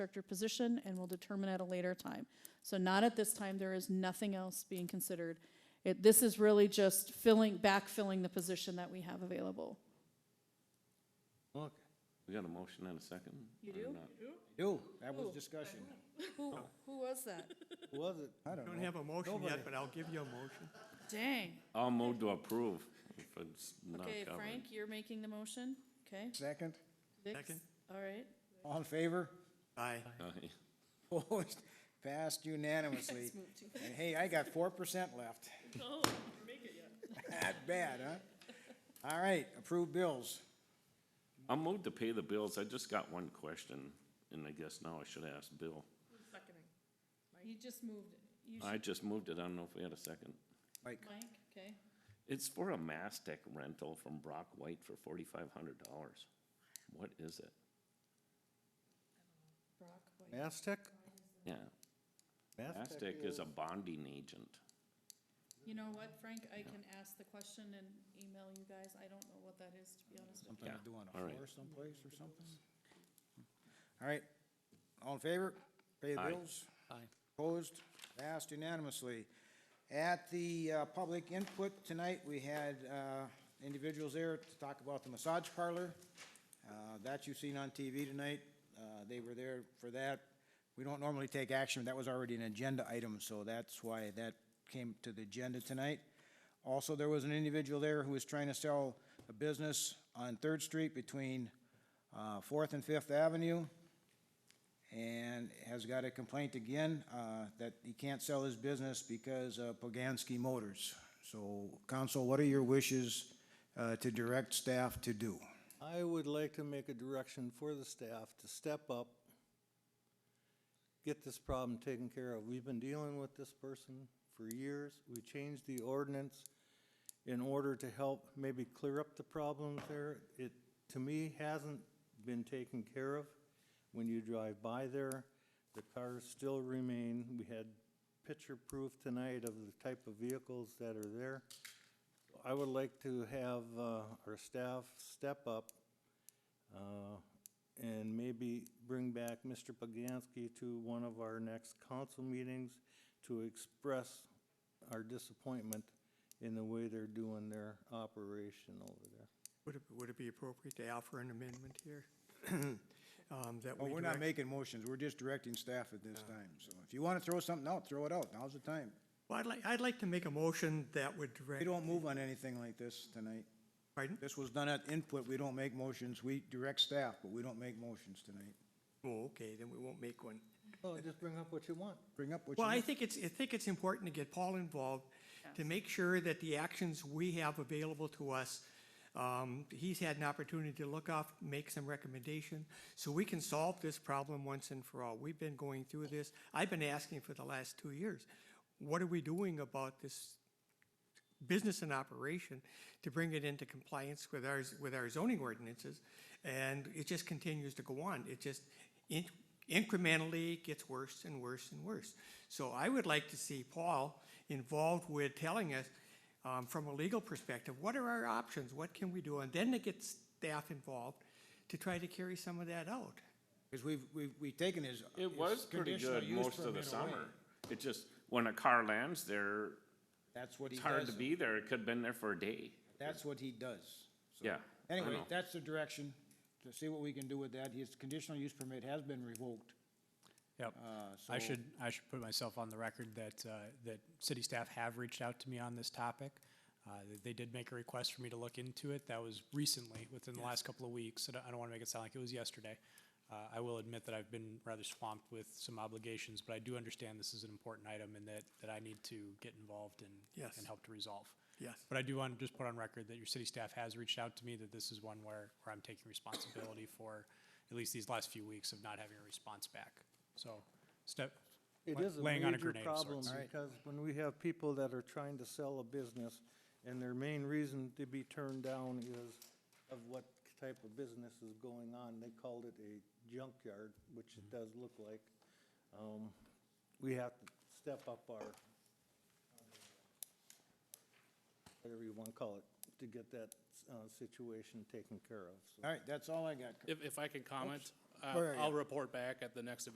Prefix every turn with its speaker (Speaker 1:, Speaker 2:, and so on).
Speaker 1: instructor position, and we'll determine at a later time. So not at this time, there is nothing else being considered. It, this is really just filling, backfilling the position that we have available.
Speaker 2: Look,
Speaker 3: We got a motion and a second? You do?
Speaker 2: do, that was discussion.
Speaker 1: Who, who was that?
Speaker 2: Was it? I don't know.
Speaker 4: Don't have a motion yet, but I'll give you a motion.
Speaker 1: Dang.
Speaker 3: I'll move to approve if it's not
Speaker 1: Okay,
Speaker 3: covered.
Speaker 1: Frank, you're making the motion, okay?
Speaker 2: Second,
Speaker 1: Dick?
Speaker 4: Second.
Speaker 1: All right.
Speaker 2: all in favor?
Speaker 4: Aye.
Speaker 3: Aye.
Speaker 2: Opposed? Passed unanimously. And hey, I got four percent left. Not bad, huh? All right, approved bills.
Speaker 3: I'll move to pay the bills. I just got one question, and I guess now I should ask Bill.
Speaker 1: You just moved, you,
Speaker 3: I just moved it. I don't know if we had a second.
Speaker 2: Mike,
Speaker 1: Mike, okay?
Speaker 3: It's for a Mastec rental from Brock White for forty-five hundred dollars. What is it?
Speaker 1: Brock, White.
Speaker 5: Aztec?
Speaker 3: Yeah, Mastec is a bonding agent.
Speaker 1: You know what, Frank, I can ask the question and email you guys, I don't know what that is, to be honest with you.
Speaker 2: Something to do on a
Speaker 3: all right.
Speaker 2: floor someplace or something? All right, all in favor? Pay the
Speaker 3: Aye.
Speaker 2: bills? Aye. Opposed? Passed unanimously. At the uh, public input tonight, we had uh, individuals there to talk about the massage parlor. Uh, That you've seen on TV tonight. Uh, They were there for that. We don't normally take action, that was already an agenda item, so that's why that came to the agenda tonight. Also, there was an individual there who was trying to sell a business on Third Street between uh, Fourth and Fifth Avenue and has got a complaint again uh, that he can't sell his business because of Poganski Motors. So, council, what are your wishes uh, to direct staff to do?
Speaker 5: I would like to make a direction for the staff to step up, get this problem taken care of. We've been dealing with this person for years. We changed the ordinance in order to help maybe clear up the problems there. It, to me, hasn't been taken care of. When you drive by there, the cars still remain. We had picture proof tonight of the type of vehicles that are there. I would like to have uh, our staff step up uh, and maybe bring back Mr. Poganski to one of our next council meetings to express our disappointment in the way they're doing their operation over there.
Speaker 4: Would it, would it be appropriate to offer an amendment here? Um, That
Speaker 2: Well,
Speaker 4: we
Speaker 2: we're not
Speaker 4: direct,
Speaker 2: making motions, we're just directing staff at this time. So if you want to throw something out, throw it out, now's the time.
Speaker 4: well, I'd like, I'd like to make a motion that would
Speaker 2: We
Speaker 4: direct,
Speaker 2: don't move on anything like this tonight.
Speaker 4: pardon?
Speaker 2: This was done at input, we don't make motions, we direct staff, but we don't make motions tonight.
Speaker 4: Oh, okay, then we won't make one.
Speaker 5: Oh, just bring up what you want.
Speaker 2: Bring up what you
Speaker 4: Well, I
Speaker 2: want.
Speaker 4: think it's, I think it's important to get Paul involved to make sure that the actions we have available to us, um, he's had an opportunity to look off, make some recommendation, so we can solve this problem once and for all. We've been going through this. I've been asking for the last two years, what are we doing about this business in operation to bring it into compliance with our, with our zoning ordinances. And it just continues to go on. It just in- incrementally gets worse and worse and worse. So I would like to see Paul involved with telling us, um, from a legal perspective, what are our options? What can we do? And then to get staff involved to try to carry some of that out.
Speaker 2: Because we've, we've, we've taken his.
Speaker 3: It
Speaker 2: his
Speaker 3: was pretty
Speaker 2: conditional
Speaker 3: good
Speaker 2: use
Speaker 3: most of the
Speaker 2: permit away.
Speaker 3: summer. It just, when a car lands there,
Speaker 2: That's what he
Speaker 3: it's
Speaker 2: does.
Speaker 3: hard to be there. It could've been there for a day.
Speaker 2: That's what he does. So,
Speaker 3: Yeah, I
Speaker 2: Anyway,
Speaker 3: know.
Speaker 2: that's the direction, to see what we can do with that. His conditional use permit has been revoked.
Speaker 6: Yep.
Speaker 2: Uh,
Speaker 6: I
Speaker 2: so-
Speaker 6: should, I should put myself on the record that, uh, that city staff have reached out to me on this topic. Uh, they- They did make a request for me to look into it. That was recently, within the last couple of weeks. I don't- I don't want to make it sound like it was yesterday. Uh, I will admit that I've been rather swamped with some obligations, but I do understand this is an important item and that, that I need to get involved and,
Speaker 4: Yes.
Speaker 6: and help to resolve.
Speaker 4: Yes.
Speaker 6: But I do want to just put on record that your city staff has reached out to me that this is one where, where I'm taking responsibility for at least these last few weeks of not having a response back. So step,
Speaker 5: It
Speaker 6: la-
Speaker 5: is a
Speaker 6: laying on a
Speaker 5: major
Speaker 6: grenade of
Speaker 5: problem
Speaker 6: sorts.
Speaker 5: because when we have people that are trying to sell a business and their main reason to be turned down is of what type of business is going on, they called it a junkyard, which it
Speaker 6: Mm-hmm.
Speaker 5: does look like. Um, We have to step up our, whatever you want to call it, to get that uh, situation taken care of, so.
Speaker 2: All right, that's all I got.
Speaker 7: If, if I could comment, uh,
Speaker 2: Go ahead,
Speaker 7: I'll
Speaker 2: yeah.
Speaker 7: report back at the next